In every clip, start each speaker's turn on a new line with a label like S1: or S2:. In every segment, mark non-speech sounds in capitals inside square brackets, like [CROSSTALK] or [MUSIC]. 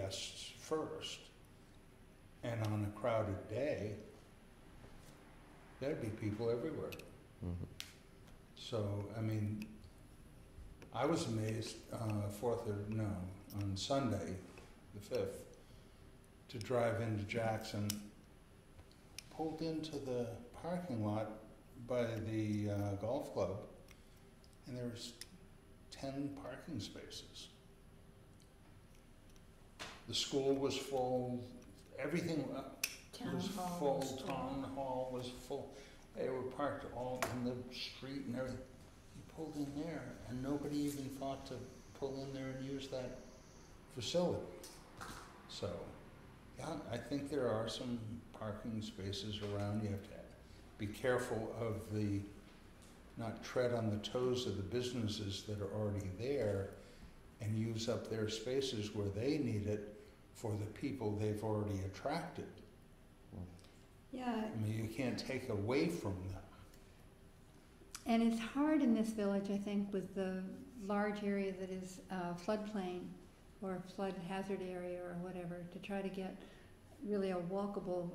S1: guests first. And on a crowded day, there'd be people everywhere.
S2: Mhm.
S1: So, I mean, I was amazed, uh, fourth or no, on Sunday, the fifth, to drive into Jackson, pulled into the parking lot by the uh, golf club, and there was ten parking spaces. The school was full, everything uh,
S3: Town
S1: was
S3: hall
S1: full,
S3: was full.
S1: town hall was full. They were parked all in the street and everything. You pulled in there, and nobody even thought to pull in there and use that facility. So, yeah, I think there are some parking spaces around. You have to be careful of the, not tread on the toes of the businesses that are already there and use up their spaces where they need it for the people they've already attracted.
S3: Yeah,
S1: I mean, you can't take away from them.
S3: and it's hard in this village, I think, with the large area that is uh, floodplain or flood hazard area or whatever, to try to get really a walkable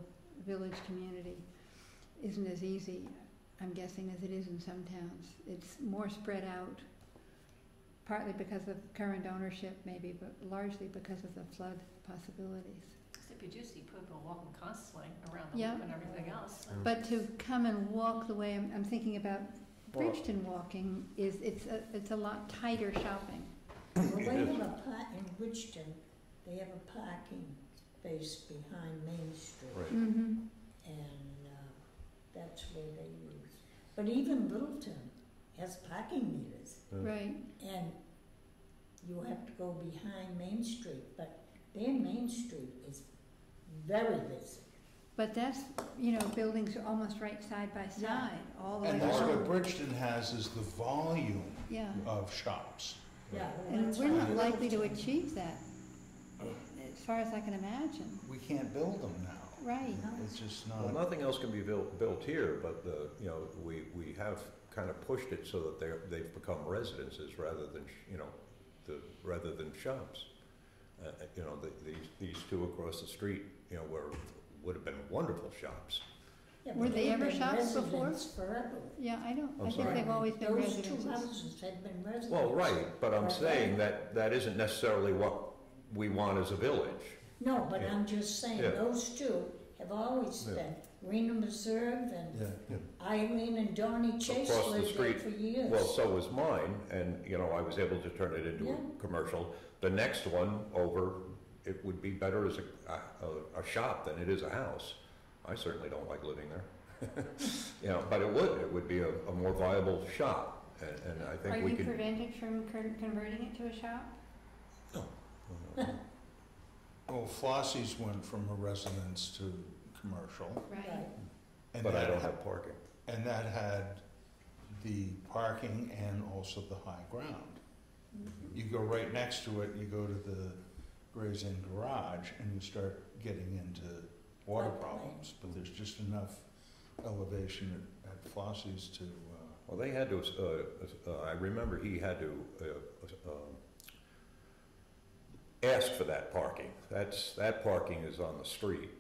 S3: village community isn't as easy, I'm guessing, as it is in some towns. It's more spread out, partly because of current ownership maybe, but largely because of the flood possibilities.
S4: Except you do see people walking constantly around the
S3: Yeah.
S4: loop and everything else.
S2: Mm.
S3: But to come and walk the way I'm, I'm thinking about Bridgeton walking is, it's a, it's a lot tighter shopping.
S5: Well, they
S2: It
S5: have
S2: is.
S5: a park in Bridgeton, they have a parking space behind Main Street,
S2: Right.
S3: Mm-hmm.
S5: and, uh, that's where they use. But even Littleton has parking meters,
S3: Right,
S5: and you have to go behind Main Street, but their Main Street is very busy.
S3: but that's, you know, buildings are almost right side by
S5: Yeah.
S3: side, all the way
S1: And that's what
S3: along,
S1: Bridgeton has is the volume
S3: yeah.
S1: of shops.
S5: Yeah. well,
S3: And
S5: that's
S3: we're
S5: why
S3: not likely to
S5: Littleton-
S3: achieve that,
S2: Oh.
S3: as far as I can imagine,
S1: We can't build them now.
S3: right.
S1: It's just
S2: Well,
S1: not,
S2: nothing else can be built, built here, but the, you know, we, we have kind of pushed it so that they're, they've become residences rather than, sh- you know, the, rather than shops. Uh, uh, you know, the, these, these two across the street, you know, were, would have been wonderful shops.
S5: Yeah,
S3: Were
S5: but
S3: they
S5: they've
S3: ever
S5: been
S3: shops before?
S5: residents forever.
S3: Yeah, I don't,
S2: I'm
S3: I think
S2: sorry?
S3: they've always been
S5: Those two
S3: residences.
S5: houses had been residences.
S2: Well, right, but I'm
S5: Right.
S2: saying that, that isn't necessarily what we want as a village.
S5: No, but
S2: Yeah.
S5: I'm just saying,
S2: Yeah.
S5: those two have always
S2: Yeah.
S5: been, Rena Reserve and
S1: yeah.
S5: Eileen and Donnie Chase
S2: Across the
S5: lived there
S2: street.
S5: for years.
S2: Well, so was mine, and, you know, I was able to turn it into
S5: Yeah.
S2: a commercial. The next one over, it would be better as a, a, a shop than it is a house. I certainly don't like living there. [LAUGHS] You know, but it would, it would be a, a more viable shop, and, and I
S3: Are
S2: think we
S3: you
S2: could.
S3: prevented from con- converting it to a shop?
S1: Well, Flossie's went from a residence to commercial.
S3: Right,
S5: Right.
S1: and
S2: But I
S1: that
S2: don't
S1: ha-
S2: have parking.
S1: And that had the parking and also the high ground. You go right next to it, you go to the Gray's Inn Garage, and you start getting into water
S5: Floodplain.
S1: problems. But there's just enough elevation at- at Flossie's to, uh,
S2: Well, they had to, uh, uh, I remember he had to, uh, um, ask for that parking. That's, that parking is on the street.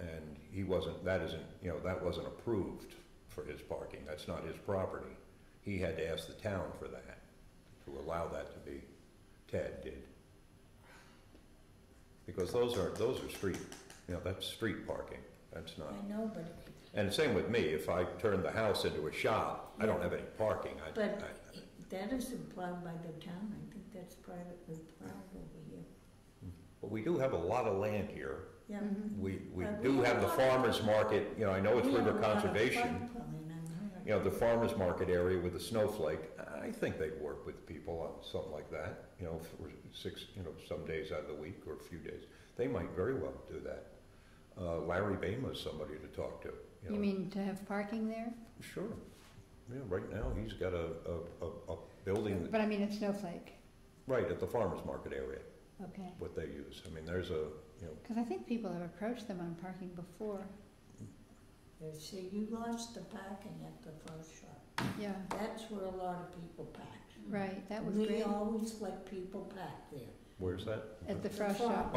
S2: And he wasn't, that isn't, you know, that wasn't approved for his parking. That's not his property. He had to ask the town for that, to allow that to be, Tad did. Because those are, those are street, you know, that's street parking. That's not.
S5: I know, but,
S2: And same with me, if I turn the house into a shop, I don't have any parking, I,
S5: but
S2: I,
S5: that isn't plowed by the town, I think that's privately plowed over here.
S2: but we do have a lot of land here.
S5: Yeah.
S3: Mhm.
S2: We, we
S5: Uh, we
S2: do
S5: have
S2: have
S5: a
S2: the
S5: lot of-
S2: farmer's market, you know, I know it's
S5: We have
S2: river
S5: a lot of
S2: conservation.
S5: floodplain on here.
S2: You know, the farmer's market area with the snowflake, I think they'd work with people on something like that, you know, for six, you know, some days out of the week or a few days. They might very well do that. Uh, Larry Bama's somebody to talk to, you know.
S3: you mean to have parking there?
S2: Sure. Yeah, right now, he's got a, a, a, a building,
S3: But I mean, it's Snowflake,
S2: right, at the farmer's market area.
S3: okay.
S2: what they use. I mean, there's a, you know,
S3: Because I think people have approached them on parking before,
S5: You See, you lost the parking at the first shop,
S3: yeah,
S5: that's where a lot of people park.
S3: right, that was
S5: We
S3: great,
S5: always let people park there.
S2: where's that?
S3: at the frost
S5: farm.
S3: shop.